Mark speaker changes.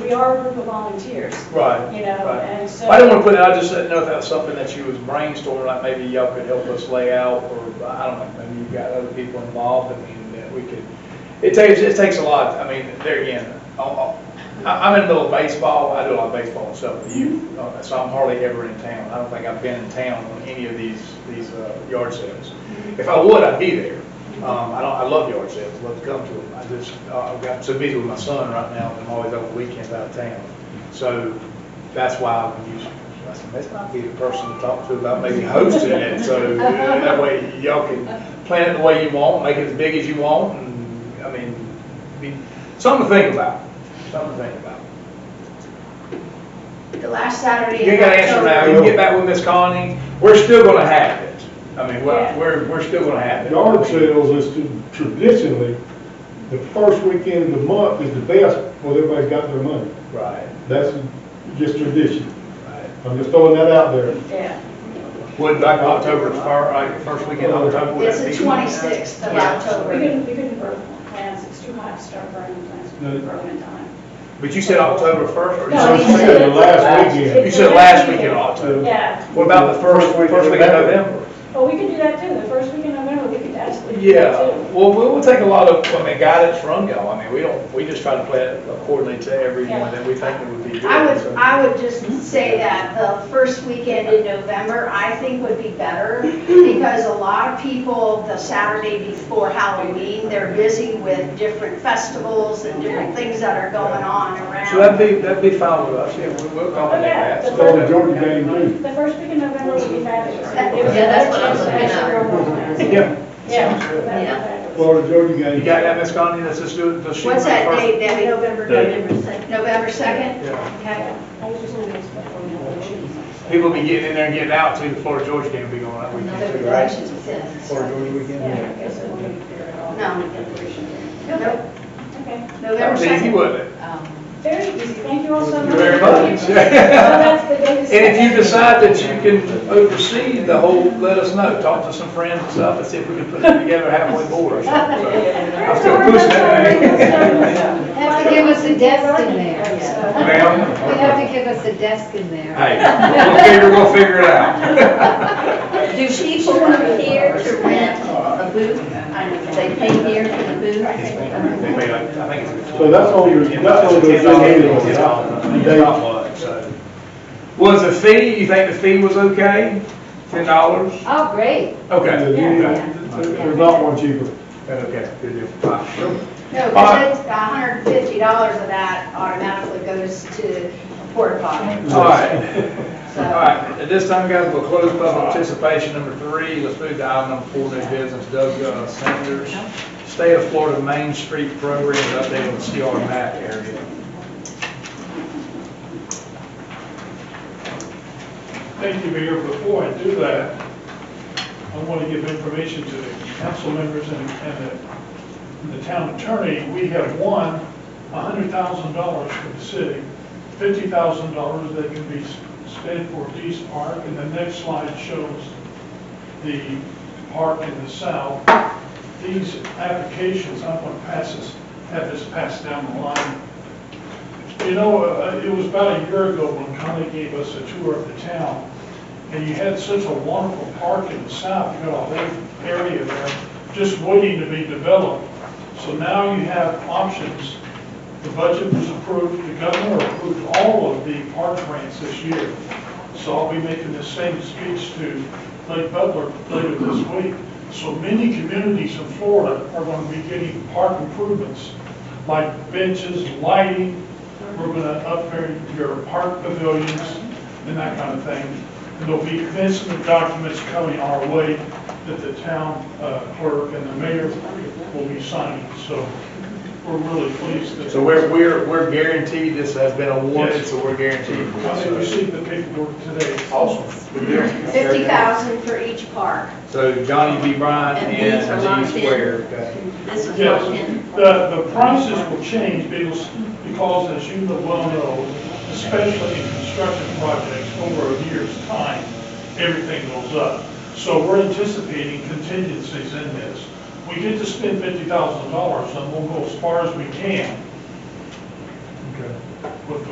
Speaker 1: we are a group of volunteers,
Speaker 2: Right.
Speaker 1: you know,
Speaker 2: right.
Speaker 1: and so.
Speaker 2: I didn't want to put it, I just didn't know if that was something that you was brainstorming, like maybe y'all could help us lay out, or I don't know, maybe you've got other people involved, I mean, that we could, it takes, it takes a lot, I mean, there again, I'll- I'll- I- I'm in the middle of baseball, I do a lot of baseball myself, with youth, uh, so I'm hardly ever in town. I don't think I've been in town on any of these, these uh, yard sales. If I would, I'd be there. Um, I don't, I love yard sales, love to come to them. I just, uh, I've got so busy with my son right now, and I'm always over weekends out of town. So that's why I would use, I said, this might be the person to talk to about maybe hosting it. So uh, that way y'all can plan it the way you want, make it as big as you want, and, I mean, be, something to think about, something to think about.
Speaker 1: The last Saturday.
Speaker 2: You ain't got to answer now, you can get back with Miss Connie, we're still gonna have it. I mean,
Speaker 1: Yeah.
Speaker 2: we're, we're, we're still gonna have it.
Speaker 3: Yard sales is to- traditionally, the first weekend of the month is the best, because everybody's got their money.
Speaker 2: Right,
Speaker 3: That's just tradition.
Speaker 2: right.
Speaker 3: I'm just throwing that out there.
Speaker 1: Yeah,
Speaker 2: Would like October, fir- like first weekend of October? would
Speaker 4: It's
Speaker 2: that
Speaker 4: the
Speaker 2: be-
Speaker 4: 26th of
Speaker 1: we
Speaker 2: Yeah.
Speaker 4: October.
Speaker 1: couldn't, we couldn't burn plants, it's too hot to start burning plants, we couldn't burn in time.
Speaker 2: But you said October first, or you
Speaker 1: No,
Speaker 3: you
Speaker 2: said,
Speaker 3: said the last
Speaker 2: you
Speaker 3: weekend.
Speaker 2: said last weekend of October?
Speaker 1: Yeah,
Speaker 2: What about the first, first weekend of November?
Speaker 1: well, we could do that too, the first weekend of November, we could absolutely do
Speaker 2: Yeah,
Speaker 1: that too.
Speaker 2: well, we will take a lot of, I mean, guidance from y'all, I mean, we don't, we just try to play it accordingly to everyone that we think would be good.
Speaker 4: I would,
Speaker 2: so.
Speaker 4: I would just say that the first weekend in November, I think would be better because a lot of people, the Saturday before Halloween, they're busy with different festivals and different things that are going on
Speaker 2: So that'd
Speaker 4: around.
Speaker 2: be, that'd be fine with us, yeah, we- we'll accommodate that.
Speaker 1: Oh,
Speaker 3: So the Georgia game, too.
Speaker 1: The first week in November would be fabulous.
Speaker 5: Yeah, that's what I'm looking
Speaker 1: at.
Speaker 2: Yeah,
Speaker 1: Yeah.
Speaker 2: Sounds good.
Speaker 1: that'd be
Speaker 5: Yeah.
Speaker 1: fabulous.
Speaker 3: Florida Georgia game.
Speaker 2: you got that, Ms. Connie, let's just do it. let's shoot
Speaker 4: What's
Speaker 2: for the
Speaker 4: that
Speaker 2: first-
Speaker 4: date, Debbie?
Speaker 5: November,
Speaker 3: November
Speaker 4: November 2nd?
Speaker 2: Yeah,
Speaker 4: Okay.
Speaker 1: I was just wondering what's going on.
Speaker 2: people will be getting in there and getting out too, the Florida Georgia game will be going that weekend too, right? Florida
Speaker 1: Yeah,
Speaker 2: Georgia
Speaker 1: I
Speaker 2: weekend?
Speaker 1: guess it wouldn't be fair at all.
Speaker 4: No. Nope.
Speaker 1: Okay,
Speaker 2: That
Speaker 4: November Um,
Speaker 2: was easy,
Speaker 4: 2nd.
Speaker 2: wasn't it?
Speaker 1: very easy, thank you all so
Speaker 2: Thank
Speaker 1: much.
Speaker 2: you very
Speaker 1: So
Speaker 2: much.
Speaker 1: that's the day to
Speaker 2: And if you
Speaker 1: start.
Speaker 2: decide that you can oversee the whole, let us know, talk to some friends and stuff, and see if we can put it together halfway board or something. So, I'm still pushing that.
Speaker 5: Have to give us a desk in there. We
Speaker 2: Ma'am?
Speaker 5: have to give us a desk in there.
Speaker 2: Hey, we'll figure, we'll figure it out.
Speaker 6: Do people come here to rent a booth? They pay here for the booth?
Speaker 2: They may like- I think it's-
Speaker 3: So that's all your- that's all your-
Speaker 2: It's all- it's all- it's not much, so. Was the fee, you think the fee was okay? Ten dollars?
Speaker 5: Oh, great.
Speaker 2: Okay.
Speaker 3: There's not one cheaper.
Speaker 2: Okay, good deal. All right.
Speaker 4: No, because it's $150 of that automatically goes to a porta potty.
Speaker 2: All right.
Speaker 4: So-
Speaker 2: All right, at this time, guys, we'll close public participation number three. Let's move to item number four, new business, Doug uh, Sanders, State of Florida Main Street Program, update on the CR map area.
Speaker 7: Thank you, Mayor. Before I do that, I want to give information to the council members and, and the, the town attorney. We have won hundred thousand dollars for the city, fifty thousand dollars that can be spent for Dees Park. And the next slide shows the park in the south. These applications, I'm going to pass this, have this passed down the line you know, uh, it was about a year ago when Connie gave us a tour of the town, and you had such a wonderful park in the south, you got a whole area there just waiting to be developed. So now you have options. The budget was approved, the governor approved all of the park grants this year. So I'll be making the same speech to Lake Butler later this week. So many communities in Florida are going to be getting park improvements, like benches, lighting, we're going to upgrade your park pavilions and that kind of thing. And there'll be events and documents coming our way that the town uh, clerk and the mayor will be signing. So we're really pleased that.
Speaker 2: So we're, we're, we're guaranteed this has been awarded,
Speaker 7: Yes.
Speaker 2: so we're guaranteed.
Speaker 7: I received the paperwork today.
Speaker 2: Awesome.
Speaker 4: 50,000 for each park.
Speaker 2: So Johnny B. Bryant
Speaker 6: And these are
Speaker 2: and
Speaker 6: locked
Speaker 2: G
Speaker 6: in.
Speaker 2: Square. okay.
Speaker 6: This is
Speaker 7: Yes,
Speaker 6: locked in.
Speaker 7: the, the prices will change because, because as you well know, especially in construction projects, over a year's time, everything goes up. So we're anticipating contingencies in this. We get to spend fifty thousand dollars and we'll go as far as we can. with the